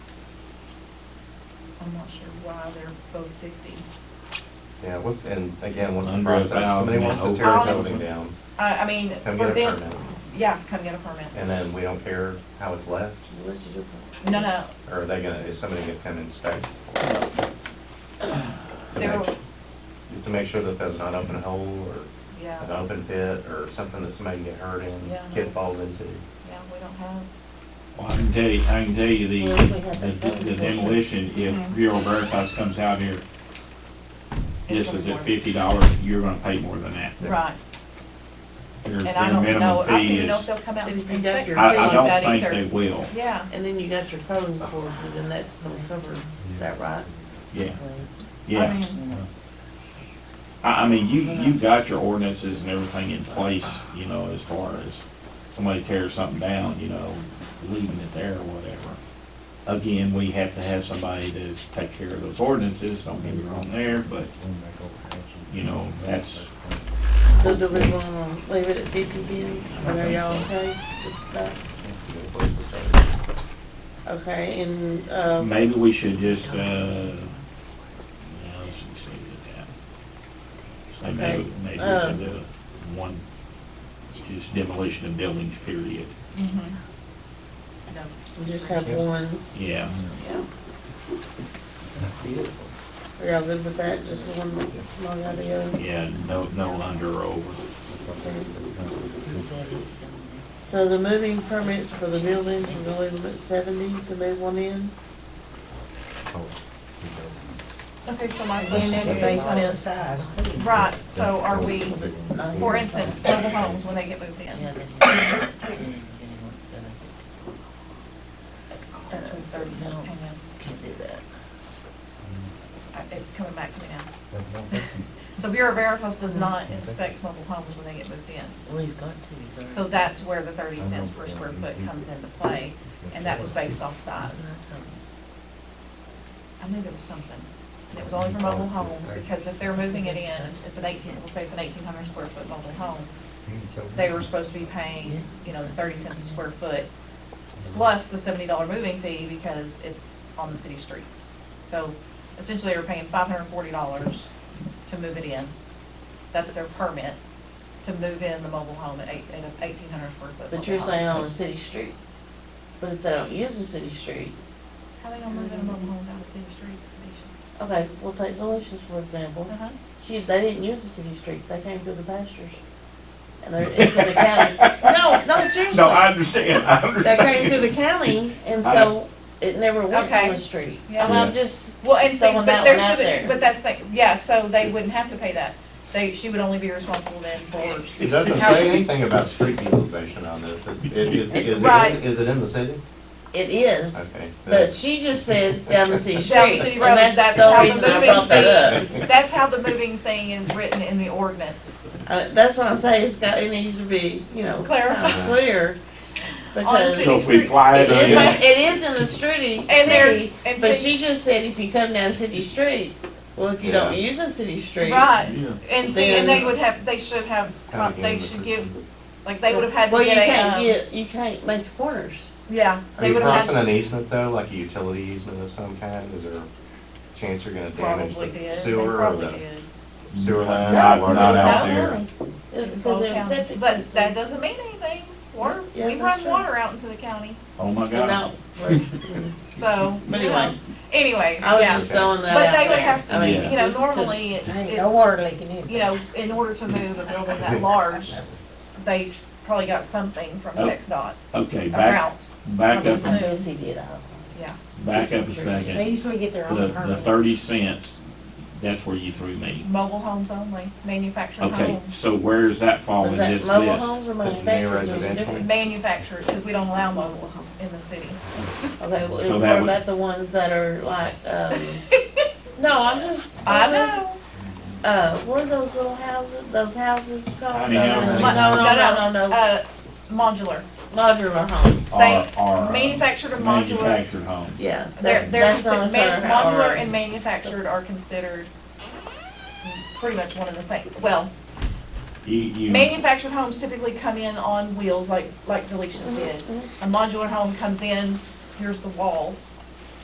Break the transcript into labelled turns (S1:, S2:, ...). S1: I'm not sure why they're both fifty.
S2: Yeah, what's, and again, what's the
S3: Under a
S2: process?
S3: thousand
S2: Somebody wants to
S3: and
S2: tear a
S1: open.
S2: building down,
S1: I, I mean,
S2: come
S1: for
S2: get a
S1: them,
S2: permit,
S1: yeah, come get a permit.
S2: and then we don't care how it's left?
S1: No, no,
S2: Or are they gonna, is somebody gonna come inspect? To
S1: There
S2: make,
S1: will-
S2: to make sure that there's not an open hole or an
S1: yeah,
S2: open pit or something that somebody can get hurt in,
S1: Yeah.
S2: kid falls into.
S1: yeah, we don't have,
S3: Well, I can tell you, I can tell you the,
S4: Well, we had that
S3: the the demolition, if
S1: Mhm.
S3: Bureau Veritas comes out here,
S1: It's
S3: this is
S1: gonna
S3: at
S1: be
S3: fifty dollars, you're gonna pay more than that.
S1: right,
S3: Their,
S1: and I
S3: their
S1: don't know,
S3: minimum
S1: I don't
S3: fee
S1: even know if
S3: is,
S1: they'll come out and
S4: If you got
S1: inspect
S4: your
S1: something
S3: I, I
S1: like
S3: don't think
S1: that
S3: they
S1: either.
S3: will,
S1: Yeah,
S4: And then you got your phone for you, then that's gonna cover, that right?
S3: yeah,
S1: I
S3: yeah.
S1: mean, mm-hmm.
S3: I, I mean, you, you got your ordinances and everything in place, you know, as far as somebody tears something down, you know, leaving it there or whatever. Again, we have to have somebody to take care of those ordinances, don't get me wrong there, but you know, that's,
S4: So do we wanna leave it at fifty then, or are y'all okay with that?
S2: It's a good place to start.
S4: Okay, and, um.
S3: maybe we should just, uh, no, let's just leave it at that. Say maybe,
S4: Okay,
S3: maybe we
S4: uh,
S3: can do one, just demolition of buildings, period,
S1: mhm. No,
S4: we Just have one,
S3: yeah.
S1: yeah.
S4: are y'all good with that, just one, one out of the other?
S3: Yeah, no, no under or over.
S4: So the moving permits for the buildings, we're gonna leave them at seventy to move one in?
S1: Okay, so like when in the basement is, right, so are we, for instance, mobile homes, when they get moved in, that's when thirty cents came in.
S4: Can't do that.
S1: Uh, It's coming back to me now. So Bureau of Veritas does not inspect mobile homes when they get moved in.
S4: Well, he's got to, he's already.
S1: So that's where the thirty cents per square foot comes into play, and that was based off size. I knew there was something. And It was only for mobile homes, because if they're moving it in, it's an eighteen, we'll say it's an eighteen hundred square foot mobile home, they were supposed to be paying, you know, thirty cents a square foot, plus the seventy dollar moving fee, because it's on the city streets. So essentially, they were paying five hundred and forty dollars to move it in. That's their permit to move in the mobile home at eight, at eighteen hundred square foot.
S4: But
S1: mobile
S4: you're
S1: home.
S4: saying on the city street, but if they don't use the city street,
S1: How they gonna move in a mobile home down the city street, Keisha?
S4: okay, we'll take Delicious for example.
S1: Uh-huh.
S4: She, they didn't use the city street, they came through the pastures. And they're, it's in the county, no, no, seriously.
S3: No, I understand, I
S4: They came through
S3: understand.
S4: the county, and so it never went
S1: Okay.
S4: on the street.
S1: Yeah.
S4: And I'm just
S1: Well, and see,
S4: throwing
S1: but
S4: that
S1: there
S4: one out
S1: should, but
S4: there.
S1: that's the, yeah, so they wouldn't have to pay that. They, she would only be responsible then for,
S2: It doesn't say anything about street utilization on this. It- it- Is, is it,
S1: Right.
S2: in- is it in the city?
S4: It is,
S2: Okay.
S4: but she just said down the city
S1: Down the
S4: street,
S1: city
S4: and
S1: roads,
S4: that's
S1: that's
S4: the
S1: how the
S4: only reason I
S1: moving
S4: brought that up.
S1: that's how the moving thing is written in the ordinance.
S4: Uh, that's why I say it's got, it needs to be, you know,
S1: Clarified.
S4: kind of clear,
S1: the
S4: because.
S3: So if we fly it
S4: It is,
S3: under,
S4: it is in the street,
S1: And there,
S4: city,
S1: and
S4: but
S1: see,
S4: she just said if you come down city streets, well, if you don't
S2: Yeah.
S4: use a city street.
S1: right,
S3: yeah,
S1: and see, and they
S4: Then-
S1: would have, they should have,
S2: Kinda game
S1: they
S2: this
S1: should
S2: is-
S1: give, like, they would have had
S4: Well,
S1: to
S4: you
S1: get
S4: can't
S1: a, um,
S4: get, you can't make the corners.
S1: yeah,
S2: Are
S1: they
S2: you
S1: would have
S2: crossing
S1: had,
S2: an easement though, like a utility easement of some kind? Is there a chance you're gonna damage
S1: probably
S2: the
S1: did, they
S2: sewer or
S1: probably
S2: the
S1: did.
S2: sewer line?
S3: Not-
S2: or
S3: not
S2: whatever?
S3: out there.
S4: Because
S1: All
S4: there's
S1: county.
S4: septic
S1: But that
S4: system.
S1: doesn't mean anything, water,
S4: Yeah,
S1: we
S4: that's
S1: run
S4: true.
S1: water out into the county,
S3: oh my
S4: No,
S3: God.
S1: so.
S4: but
S1: you know.
S4: anyway,
S1: Anyway,
S4: I was
S1: yeah.
S4: just throwing that
S1: But
S4: out
S1: they would
S4: there.
S1: have to
S4: I
S3: be,
S4: mean,
S1: you know,
S4: just 'cause-
S1: normally it's-
S4: Hey,
S1: it's-
S4: leaking is
S1: you know, in order to move a building that large, they probably got something from
S3: Oh.
S1: TXDOT,
S3: Okay,
S1: a
S3: back,
S1: route,
S3: back
S1: I'm
S3: up,
S1: just-
S4: Yes, he did, I hope.
S1: yeah.
S3: back up a second.
S4: usually get their
S3: The, the thirty cents, that's where you threw me.
S1: Mobile homes only, manufactured
S3: Okay,
S1: homes,
S3: so where does that fall in
S4: Was Oh. that
S3: this
S4: mobile
S3: list?
S4: homes or
S2: Is it
S4: manufactured? There's a
S2: residential?
S4: difference.
S1: manufactured, because we don't allow mobiles in the city.
S4: Okay,
S3: So
S4: well,
S3: that
S4: what
S3: would-
S4: about the ones that are like, um, no, I'm just.
S1: I know,
S4: Uh, what are those little houses, those houses called?
S3: Tiny
S4: No,
S3: houses.
S4: No, no, no,
S1: No,
S4: no, no,
S1: uh, modular,
S4: modular homes,
S3: Are-
S1: same,
S3: are, uh,
S1: manufactured and modular,
S3: Manufactured home.
S4: yeah.
S1: they're,
S4: that's-
S1: they're,
S4: that's the
S1: consi-
S4: only term
S1: man-
S4: I
S1: modular
S4: heard.
S1: and manufactured are considered pretty much one and the same, well,
S3: You, you,
S1: Manufactured homes typically come in on wheels like, like Delicia's did. A modular home comes in, here's the wall,